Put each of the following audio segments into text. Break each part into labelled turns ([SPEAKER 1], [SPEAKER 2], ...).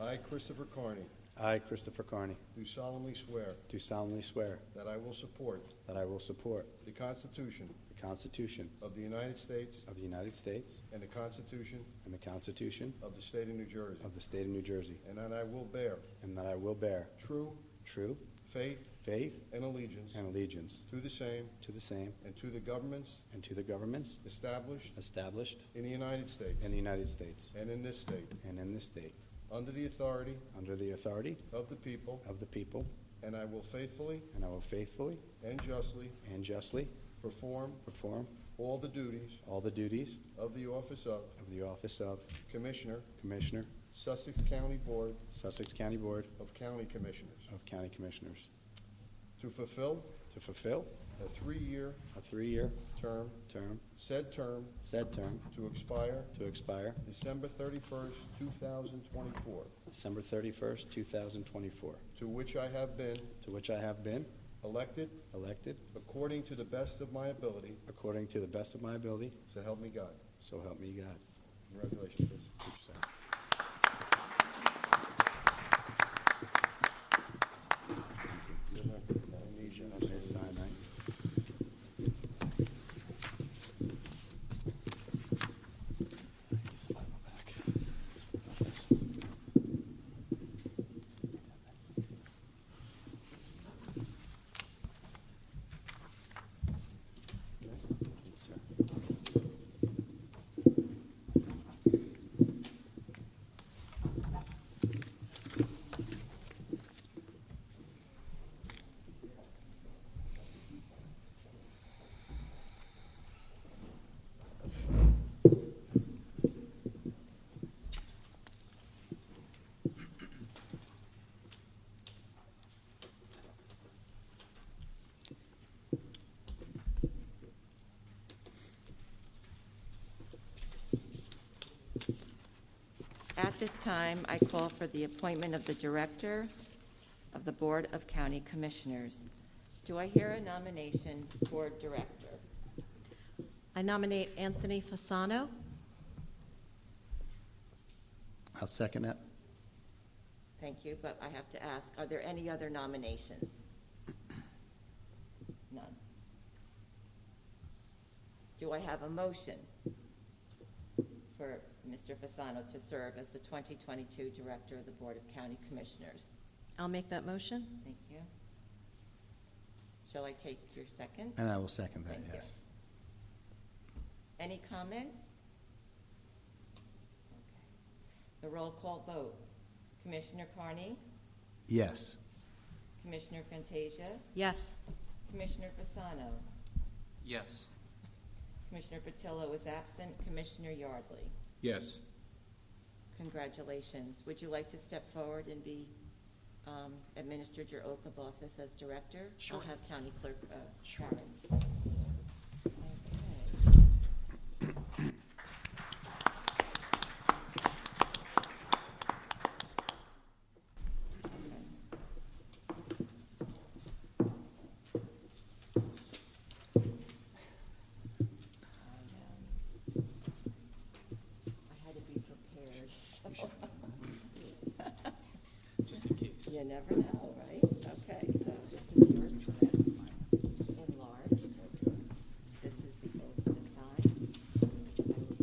[SPEAKER 1] I, Christopher Carney,
[SPEAKER 2] I, Christopher Carney,
[SPEAKER 1] do solemnly swear
[SPEAKER 2] do solemnly swear
[SPEAKER 1] that I will support
[SPEAKER 2] that I will support
[SPEAKER 1] the Constitution
[SPEAKER 2] the Constitution
[SPEAKER 1] of the United States
[SPEAKER 2] of the United States
[SPEAKER 1] and the Constitution
[SPEAKER 2] and the Constitution
[SPEAKER 1] of the State of New Jersey,
[SPEAKER 2] of the State of New Jersey,
[SPEAKER 1] and that I will bear
[SPEAKER 2] and that I will bear
[SPEAKER 1] true
[SPEAKER 2] true
[SPEAKER 1] faith
[SPEAKER 2] faith
[SPEAKER 1] and allegiance
[SPEAKER 2] and allegiance
[SPEAKER 1] to the same
[SPEAKER 2] to the same
[SPEAKER 1] and to the governments
[SPEAKER 2] and to the governments
[SPEAKER 1] established
[SPEAKER 2] established
[SPEAKER 1] in the United States
[SPEAKER 2] in the United States
[SPEAKER 1] and in this state,
[SPEAKER 2] and in this state,
[SPEAKER 1] under the authority
[SPEAKER 2] under the authority
[SPEAKER 1] of the people,
[SPEAKER 2] of the people,
[SPEAKER 1] and I will faithfully
[SPEAKER 2] and I will faithfully
[SPEAKER 1] and justly
[SPEAKER 2] and justly
[SPEAKER 1] perform
[SPEAKER 2] perform
[SPEAKER 1] all the duties
[SPEAKER 2] all the duties
[SPEAKER 1] of the office of
[SPEAKER 2] of the office of
[SPEAKER 1] Commissioner,
[SPEAKER 2] Commissioner,
[SPEAKER 1] Sussex County Board
[SPEAKER 2] Sussex County Board
[SPEAKER 1] of County Commissioners,
[SPEAKER 2] of County Commissioners,
[SPEAKER 1] to fulfill
[SPEAKER 2] to fulfill
[SPEAKER 1] a three-year
[SPEAKER 2] a three-year
[SPEAKER 1] term,
[SPEAKER 2] term,
[SPEAKER 1] said term
[SPEAKER 2] said term,
[SPEAKER 1] to expire
[SPEAKER 2] to expire
[SPEAKER 1] December 31st, 2024,
[SPEAKER 2] December 31st, 2024,
[SPEAKER 1] to which I have been
[SPEAKER 2] to which I have been
[SPEAKER 1] elected
[SPEAKER 2] elected
[SPEAKER 1] according to the best of my ability,
[SPEAKER 2] according to the best of my ability,
[SPEAKER 1] so help me God.
[SPEAKER 2] so help me God.
[SPEAKER 1] Congratulations, Chris.
[SPEAKER 2] Keep safe.
[SPEAKER 1] I need you.
[SPEAKER 2] Okay, sign, right?
[SPEAKER 3] At this time, I call for the appointment of the Director of the Board of County Commissioners. Do I hear a nomination for Director?
[SPEAKER 4] I nominate Anthony Fasano.
[SPEAKER 2] I'll second that.
[SPEAKER 3] Thank you, but I have to ask, are there any other nominations? None. Do I have a motion for Mr. Fasano to serve as the 2022 Director of the Board of County Commissioners?
[SPEAKER 4] I'll make that motion.
[SPEAKER 3] Thank you. Shall I take your second?
[SPEAKER 2] And I will second Uh, that,
[SPEAKER 3] Thank you.
[SPEAKER 2] yes.
[SPEAKER 3] Any comments? Okay. The roll call vote. Commissioner Carney,
[SPEAKER 2] Yes.
[SPEAKER 3] Commissioner Fantasia,
[SPEAKER 4] Yes.
[SPEAKER 3] Commissioner Fasano,
[SPEAKER 5] Yes.
[SPEAKER 3] Commissioner Patillo is absent, Commissioner Yardley.
[SPEAKER 5] Yes.
[SPEAKER 3] Congratulations. Would you like to step forward and be um, administered your oath of office as director?
[SPEAKER 5] Sure.
[SPEAKER 3] I'll have County Clerk uh,
[SPEAKER 5] Sure.
[SPEAKER 3] Karen. Okay. I, um, I had to be prepared.
[SPEAKER 5] Just in case.
[SPEAKER 3] You never know, right? Okay, so this is yours enlarged. This is the oath to sign. I will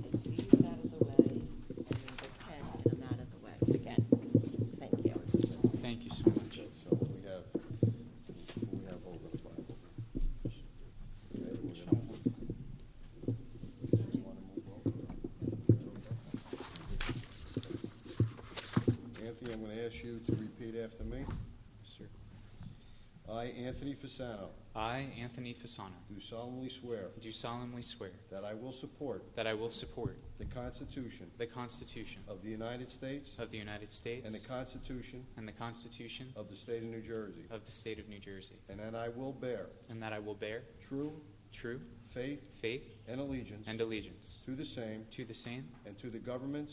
[SPEAKER 3] take these out of the way and then the pen and them out of the way again. Thank you.
[SPEAKER 5] Thank you so much.
[SPEAKER 1] So we have, we have all the five. Okay, we're gonna- Do you wanna move over? Anthony, I'm going to ask you to repeat after me.
[SPEAKER 5] Sir.
[SPEAKER 1] I, Anthony Fasano,
[SPEAKER 5] I, Anthony Fasano,
[SPEAKER 1] do solemnly swear
[SPEAKER 5] do solemnly swear
[SPEAKER 1] that I will support
[SPEAKER 5] that I will support
[SPEAKER 1] the Constitution
[SPEAKER 5] the Constitution
[SPEAKER 1] of the United States
[SPEAKER 5] of the United States
[SPEAKER 1] and the Constitution
[SPEAKER 5] and the Constitution
[SPEAKER 1] of the State of New Jersey,
[SPEAKER 5] of the State of New Jersey,
[SPEAKER 1] and that I will bear
[SPEAKER 5] and that I will bear
[SPEAKER 1] true
[SPEAKER 5] true
[SPEAKER 1] faith
[SPEAKER 5] faith
[SPEAKER 1] and allegiance
[SPEAKER 5] and allegiance
[SPEAKER 1] to the same
[SPEAKER 5] to the same
[SPEAKER 1] and to the governments